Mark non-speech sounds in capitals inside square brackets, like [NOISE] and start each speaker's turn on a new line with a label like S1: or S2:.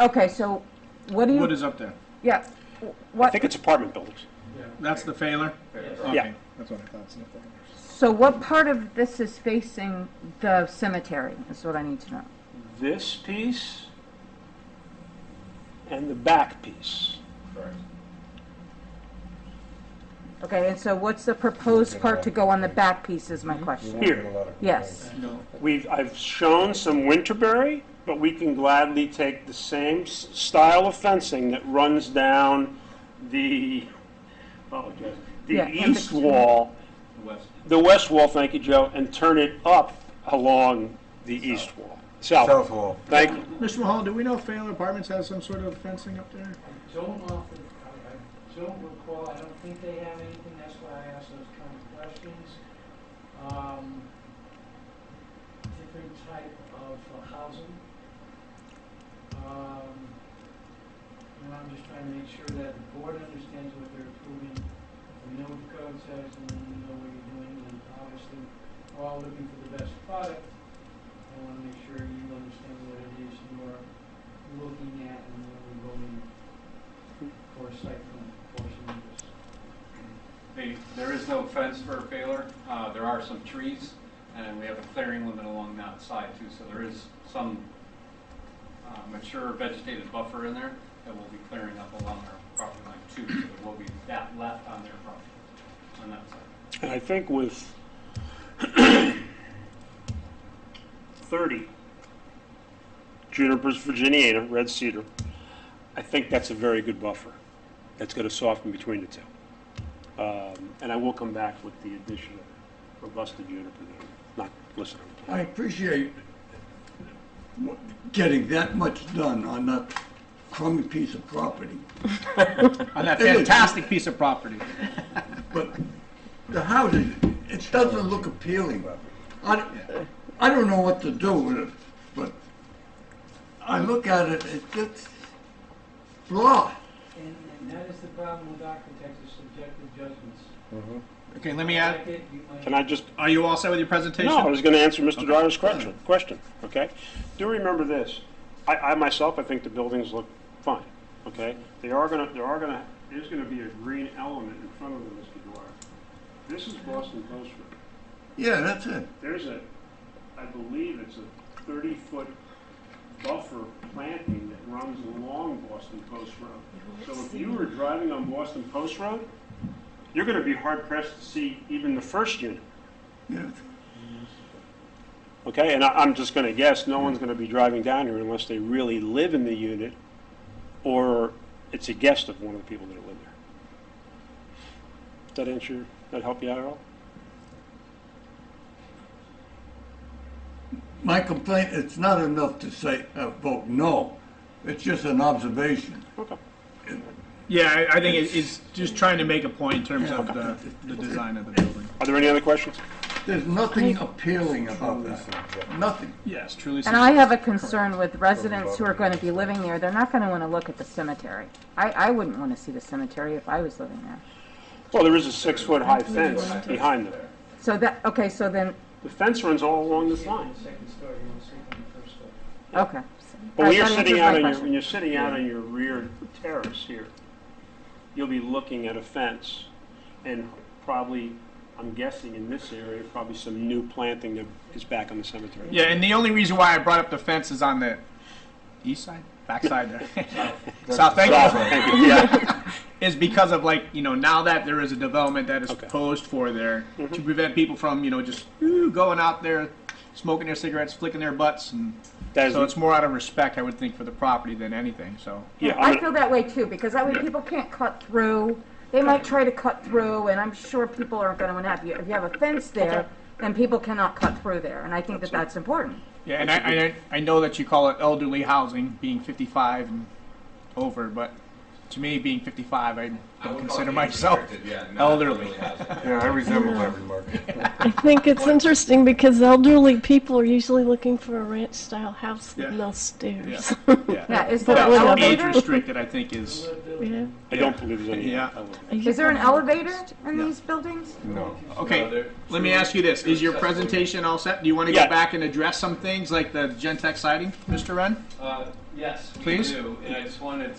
S1: Okay, so what do
S2: What
S1: you,
S2: is up there?
S1: yeah,
S3: I
S1: what,
S3: think it's apartment buildings.
S2: That's the Failer?
S3: Yeah.
S2: Okay, That's what I thought. so.
S1: so what part of this is facing the cemetery, is what I need to know?
S3: This piece and the back piece.
S1: Okay, and so what's the proposed part to go on the back piece is my question?
S3: Here,
S1: Yes,
S2: No,
S3: we've, I've shown some Winterberry, but we can gladly take the same s- style of fencing that runs down the, apologize,
S1: Yeah,
S3: the
S1: and the-
S3: east wall,
S2: west.
S3: the west wall, thank you, Joe, and turn it up along the east wall, south.
S4: South Wall.
S3: Thank you.
S2: Mr. Mahal, do we know if Failer Apartments has some sort of fencing up there?
S5: Don't often, I, I don't recall, I don't think they have anything, that's why I asked those kind of questions. Um, different type of uh, housing. Um, and I'm just trying to make sure that the board understands what they're approving. We know what the code says and then we know what you're doing, and obviously, we're all looking for the best product. I wanna make sure you understand what it is you are looking at and what we're voting for site plan, portion of this.
S6: They, there is no fence for Baylor. Uh, there are some trees, and we have a clearing limit along that side too, so there is some uh, mature vegetated buffer in there that we'll be clearing up along our property line too, so there will be that left on their property, on that side.
S3: And I think with 30 junipers virginiana, red cedar, I think that's a very good buffer. That's going to soften between the two. Um, And I will come back with the addition of robusta juniper there. Not, listen,
S7: I appreciate w- getting that much done on that crummy piece of property,
S2: On that
S7: It is.
S2: fantastic piece of property.
S7: but the houses, it doesn't look appealing. I, I don't know what to do with it, but I look at it, it's just blah.
S5: And, and that is the problem with architects, is subjective judgments.
S2: Okay, let me
S5: You
S2: add,
S5: like it, you might-
S3: can I just
S2: are you all set with your presentation?
S3: No, I was going to answer Mr. Dryer's question, question, okay? Do remember this, I, I myself, I think the buildings look fine, okay? They are going to, there are going to, there's going to be a green element in front of them, Mr. Dwyer. This is Boston Post Road.
S7: Yeah, that's it.
S3: There's a, I believe it's a thirty-foot buffer planting that runs along Boston Post Road. So if you were driving on Boston Post Road, you're going to be hard pressed to see even the first unit.
S7: Yeah.
S3: Okay, and I, I'm just gonna guess, no one's gonna be driving down here unless they really live in the unit, or it's a guest of one of the people that live there. Does that answer, that help you out at all?
S7: My complaint, it's not enough to say, uh, vote no. It's just an observation.
S3: Okay.
S2: Yeah, I- I think it- it's just trying to make a point in terms of the, the design of the building.
S3: Are there any other questions?
S7: There's nothing appealing about that, nothing.
S2: Yes, truly.
S1: and I have a concern with residents who are going to be living there, they're not going to want to look at the cemetery. I, I wouldn't want to see the cemetery if I was living there.
S3: Well, there is a six-foot high fence behind them.
S1: So that, okay, so then,
S3: The fence runs all along this
S5: Sleep on
S3: line.
S5: the second story, you wanna sleep on the first story.
S1: okay.
S3: But when you're
S1: That answers
S3: sitting
S1: my
S3: out on your,
S1: question.
S3: when you're sitting out on your rear terrace here, you'll be looking at a fence and probably, I'm guessing in this area, probably some new planting that is back on the cemetery.
S2: Yeah, and the only reason why I brought up the fence is on the east side, back side there. [LAUGHS] South, thank
S1: [LAUGHS]
S2: you.
S3: Yeah.
S2: is because of like you know now that there is a development that is
S3: Okay. Mm-hmm.
S2: proposed for there to prevent people from you know just ooh, going out there smoking their cigarettes flicking their butts and
S3: That is,
S2: so it's more out of respect i would think for the property than anything so
S3: yeah, I'm
S1: I
S3: gonna-
S1: feel that way too, because that way people can't cut through. They might try to cut through, and I'm sure people aren't going to want to have you. If you have a fence there, then people cannot cut through there, and I think that that's important.
S2: yeah and I, I I know that you call it elderly housing being 55 and over but to me, being 55, I
S6: I
S2: don't
S6: would
S2: consider
S6: call it
S2: myself
S6: restricted, yeah, no, it
S2: elderly.
S6: really hasn't.
S4: Yeah, I resemble that remark.
S8: I think it's interesting because elderly people are usually looking for a ranch style house with
S2: Yeah.
S8: no stairs.
S2: Yeah.
S1: Yeah, is there
S8: But
S1: an
S8: with a
S2: Age
S1: elevator?
S2: restricted, I think, is
S8: [LAUGHS] Yeah.
S9: I don't believe there's any. uh,
S2: Yeah.
S1: Is there an elevator in these buildings?
S4: No.
S6: No,
S2: okay.
S6: they're-
S2: Let me ask you this: Is your presentation all set? Do you want to
S9: Yeah.
S2: go back and address some things like the Gentex sighting, Mr. Wren?
S6: Uh, Yes, we
S2: Please.
S6: do, and I just wanted